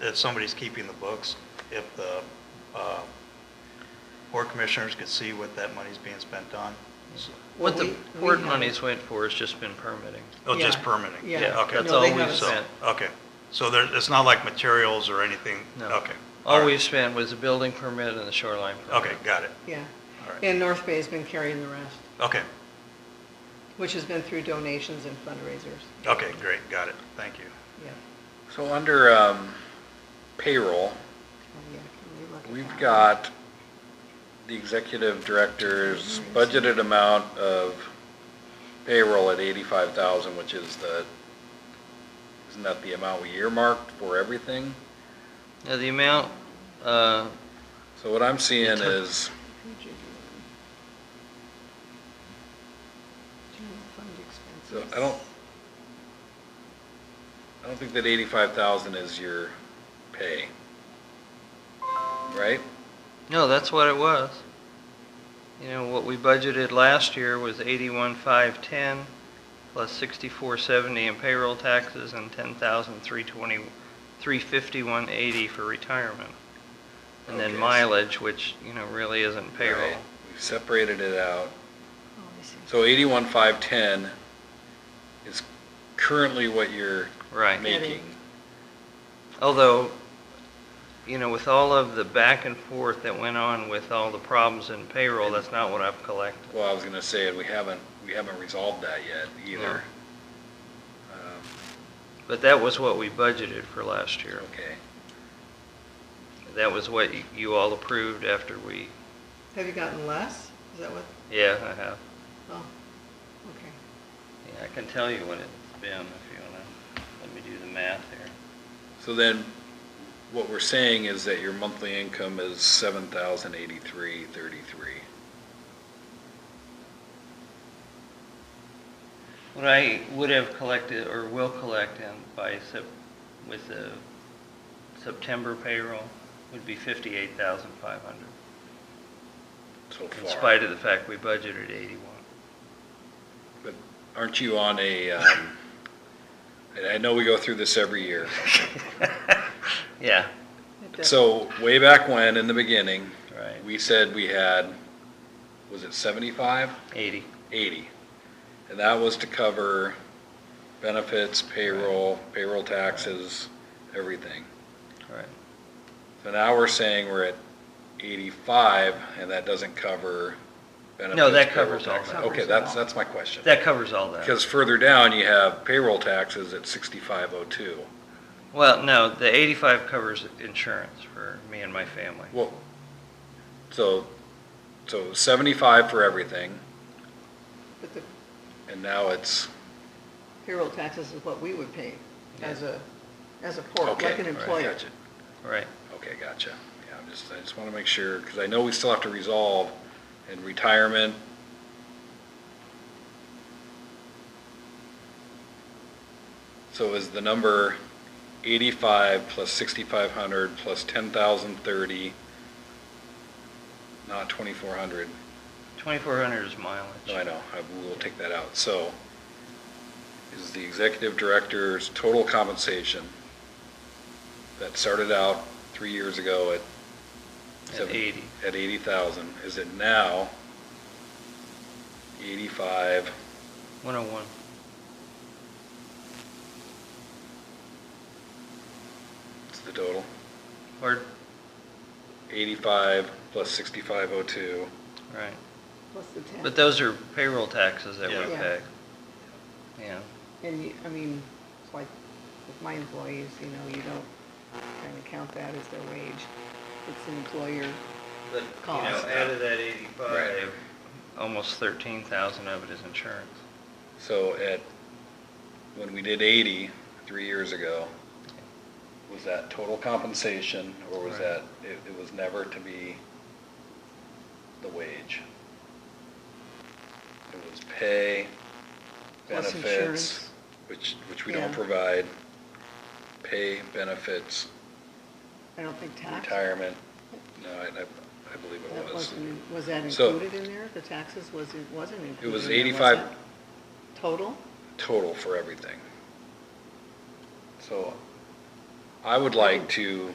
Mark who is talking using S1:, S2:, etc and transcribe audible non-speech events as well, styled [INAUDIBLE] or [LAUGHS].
S1: that somebody's keeping the books, if the uh, board commissioners could see what that money's being spent on. So-
S2: What the
S3: Well, we-
S2: board
S3: we have-
S2: monies went for has just been permitting.
S1: Oh, just
S3: Yeah,
S1: permitting?
S3: yeah.
S1: Okay.
S2: That's
S3: No,
S2: all
S3: they
S2: we've
S3: haven't.
S1: So,
S2: spent.
S1: okay. So there, it's not like materials or anything?
S2: No.
S1: Okay.
S2: All
S1: right.
S2: we've spent was the building permit and the shoreline permit.
S1: Okay, got it.
S3: Yeah.
S1: All right.
S3: And North Bay's been carrying the rest,
S1: Okay,
S3: which has been through donations and fundraisers.
S1: okay, great, got it. Thank you.
S3: Yeah.
S4: So under um, payroll,
S3: Oh, yeah. Can we look at that?
S4: we've got the executive director's budgeted amount of payroll at eighty-five thousand, which is the, isn't that the amount we earmarked for everything?
S2: Now, the amount, uh,
S4: So what I'm seeing is
S3: Page eighty-one. General fund
S4: So
S3: expenses.
S4: I don't, I don't think that eighty-five thousand is your pay. Right?
S2: no, that's what it was. You know, what we budgeted last year was eighty-one five ten plus sixty-four seventy in payroll taxes and ten thousand three twenty, three fifty-one eighty for retirement. And
S4: Okay,
S2: then
S4: so-
S2: mileage, which, you know, really isn't payroll.
S4: Right. We've separated it out.
S3: Oh, I see.
S4: So eighty-one five ten is currently what you're
S2: Right.
S4: making.
S2: Although, you know, with all of the back and forth that went on with all the problems in payroll, that's not what I've collected.
S4: Well, I was gonna say, we haven't, we haven't resolved that yet either. Um,
S2: But that was what we budgeted for last year.
S4: Okay.
S2: That was what y- you all approved after we,
S3: Have you gotten less? Is that what,
S2: yeah, I have.
S3: oh, okay.
S2: Yeah, I can tell you what it's been if you want to, let me do the math here.
S4: So then, what we're saying is that your monthly income is seven thousand eighty-three thirty-three.
S2: What I would have collected or will collect in by Sep, with the September payroll would be 58,500.
S4: so far.
S2: In spite of the fact we budgeted 81.
S4: But aren't you on a, um, and I know we go through this
S2: [LAUGHS]
S4: every year.
S2: Yeah,
S3: It does-
S4: So way back when, in the beginning,
S2: right,
S4: we said we had, was it 75,
S2: 80.
S4: 80? And that was to cover benefits, payroll, payroll taxes, everything.
S2: Right.
S4: So now we're saying we're at 85 and that doesn't cover benefits.
S2: that
S4: payroll
S2: covers all
S4: taxes.
S3: that.
S4: Okay, that's, that's my question.
S2: That covers all that.
S4: Because further down, you have payroll taxes at 6502.
S2: Well, no, the 85 covers insurance for me and my family.
S4: Well, so, so seventy-five for everything,
S3: But the
S4: and now it's,
S3: payroll taxes is what we would pay as
S2: Yeah.
S3: a, as a port,
S4: okay.
S3: like an employer.
S4: Gotcha.
S2: Right,
S4: Okay, gotcha. Yeah, I'm just, I just wanna make sure, cause I know we still have to resolve in retirement. So is the number eighty-five plus sixty-five hundred plus ten thousand thirty, not twenty-four hundred?
S2: 2,400 is mileage.
S4: No, I know, I will take that out. So is the executive director's total compensation that started out three years ago at?
S2: At
S4: seven-
S2: 80.
S4: At eighty thousand, is it now eighty-five,
S2: 101.
S4: It's the total?
S2: Or,
S4: Eighty-five plus sixty-five oh two.
S2: right.
S3: Plus the tax.
S2: But those are payroll taxes that we
S1: Yeah.
S3: Yeah.
S2: pay. Yeah,
S3: And you, I mean, it's like with my employees, you know, you don't kind of count that as their wage. It's an employer.
S2: but, you know,
S3: Cost.
S2: out of that
S4: Right.
S2: 85, almost 13,000 of it is insurance.
S4: So at, when we did eighty, three years ago, was that total compensation, or was
S2: Right.
S4: that, it, it was never to be the wage? It was pay,
S3: Plus
S4: benefits,
S3: insurance.
S4: which, which we don't
S3: Yeah.
S4: provide, pay, benefits,
S3: I don't think tax.
S4: retirement, no, I, I I believe
S3: That
S4: it was.
S3: wasn't, in- was that
S4: So-
S3: included in there? The taxes was, it wasn't included.
S4: was
S3: in there,
S4: 85
S3: it? Total?
S4: Total for everything. So I would like to